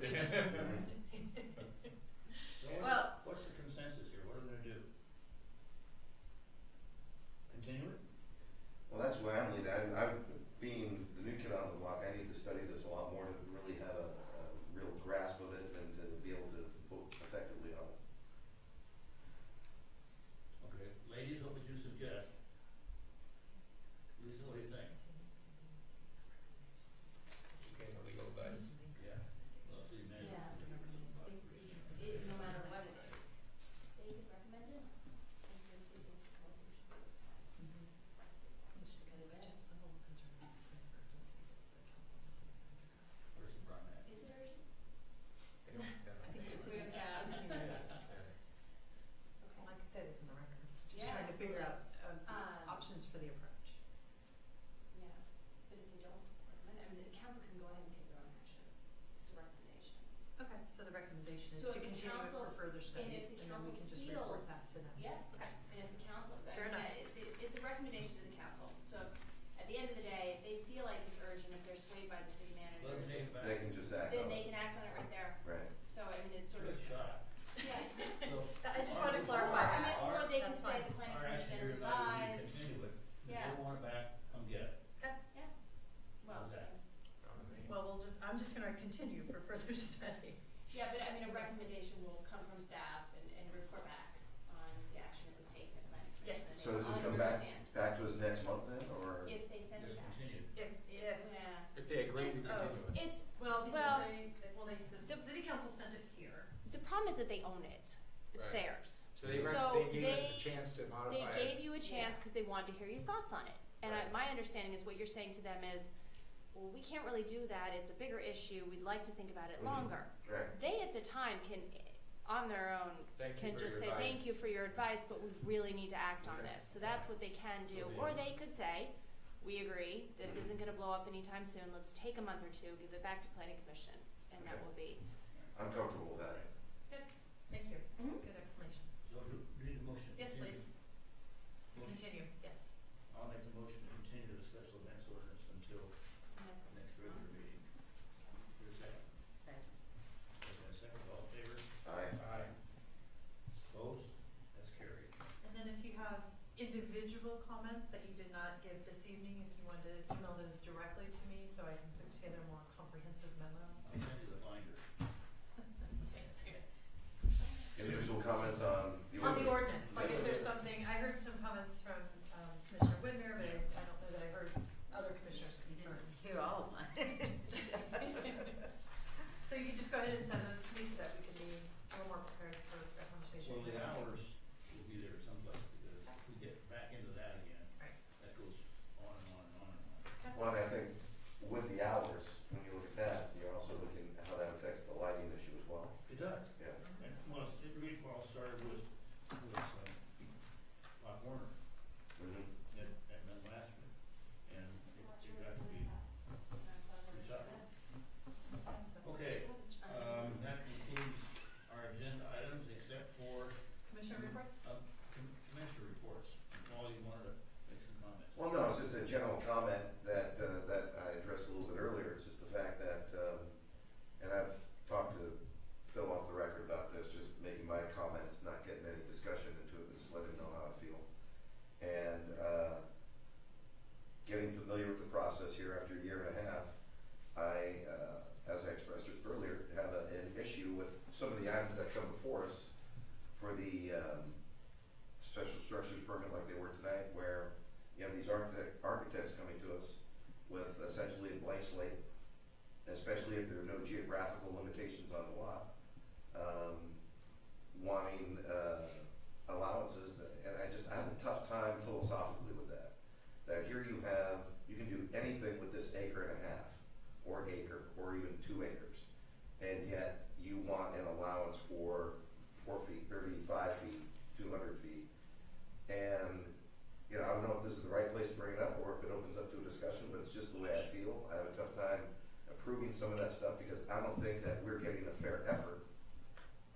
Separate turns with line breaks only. Oh,
Um,
the recommendation is
So
to
if the
continue it
council-
for further
And
study,
if the
and then
council
we can just report
feels,
that to them.
yeah,
Okay.
and if the council, I mean,
Fair enough.
that- it, it's a recommendation to the council, so at the end of the day, if they feel like it's urgent, if they're swayed by the city manager,
Let them take it back.
They can just act
then
on
they
it,
can act on it right there,
right?
so I mean, it's sort of.
Good shot.
Yeah.
So,
I just wanted to
Or-
I
clarify that.
mean, Or they could
That's
say
fine.
the planning
our action
commission is
here tonight would be
advised,
continue it. If you
Yeah.
don't want it back, come get it.
well,
How's that?
Well, we'll just, I'm just gonna continue for further study.
yeah, but I mean, a recommendation will come from staff and, and report back on the action that was taken by the planning
Yes.
commission.
So does it
I'll
come back?
understand
Back to us next month then, or?
If they send it
Just
back.
continue.
If, if,
Yeah,
If they agree, we
Oh.
continue it.
it's,
well,
Well,
because they, they- well, they, the
the-
city council sent it here.
the problem is that they own it, it's
Right.
theirs.
So they,
So
rec- they gave us
they-
a chance to
They
modify it.
gave you a chance because they wanted to hear your thoughts on it. And I,
Right.
my understanding is what you're saying to them is, well, we can't really do that. It's a bigger issue. We'd like to think about it
Mm-hmm.
Mhm.
longer.
Right,
They at the time can, on their own,
Thank you
can
for
just
your
say,
advice.
thank you for your advice, but we really need to act on
Okay.
this. So that's what they can do.
Okay.
Or they could say, we agree. This
Mm-hmm.
Mhm.
isn't going to blow up anytime soon. Let's take a month or two, give it back to planning commission, and that
Okay.
will be.
I'm comfortable with that.
Thank you.
Mhm.
Good explanation.
So do, we need a motion. to
Yes,
continue?
please. To
Motion.
continue, yes.
I'll make the motion to continue the special events ordinance until
Next.
next regular meeting. Your second. Okay, second, all in favor?
Aye.
Aye. Opposed? That's carried.
And then if you have individual comments that you did not give this evening, if you wanted to email those directly to me so I can put together a more comprehensive memo.
I'll send you the binder.
Individual comments on the
On
ordinance?
the ordinance, like if there's
Yeah.
something, I heard some comments from um, Commissioner Whitmer, but I I don't know that I heard other commissioners concerned. To all of So you could just go ahead and send those to me so that we can be a little more prepared for a conversation.
Well, the hours will be there someplace because we get back into that again.
Right.
That goes on and on and on and on.
Well, and I think with the hours, when you look at that, you're also looking at how that affects the lighting issue as well,
It does.
yeah.
And well, it's- it really all started with, with, um, Pop Warner
Mhm.
at, at Mid Last And it it got to be, Okay, um, that concludes our agenda items except for,
Commissioner reports?
um, com- commissioner reports. Paul, you wanted to make some comments?
Well, no, it's just a general comment that, uh, that I addressed a little bit earlier, it's just the fact that, um, and I've talked to Phil off the record about this, just making my comments, not getting any discussion into it, just let him know how I feel. And, uh, getting familiar with the process here after a year and a half, I, uh, as I expressed it earlier, have a, an issue with some of the items that come before us for the, um, special structures permit like they were tonight, where you have these architect, architects coming to us with essentially a blank slate, especially if there are no geographical limitations on the lot, um, wanting, uh, allowances, that- and I just, I have a tough time philosophically with that. That here you have, you can do anything with this acre and a half, or acre, or even two acres, and yet you want an allowance for four feet, thirty-five feet, two hundred feet. And you know, I don't know if this is the right place to bring it up or if it opens up to a discussion, but it's just the way I feel. I have a tough time approving some of that stuff because I don't think that we're getting a fair effort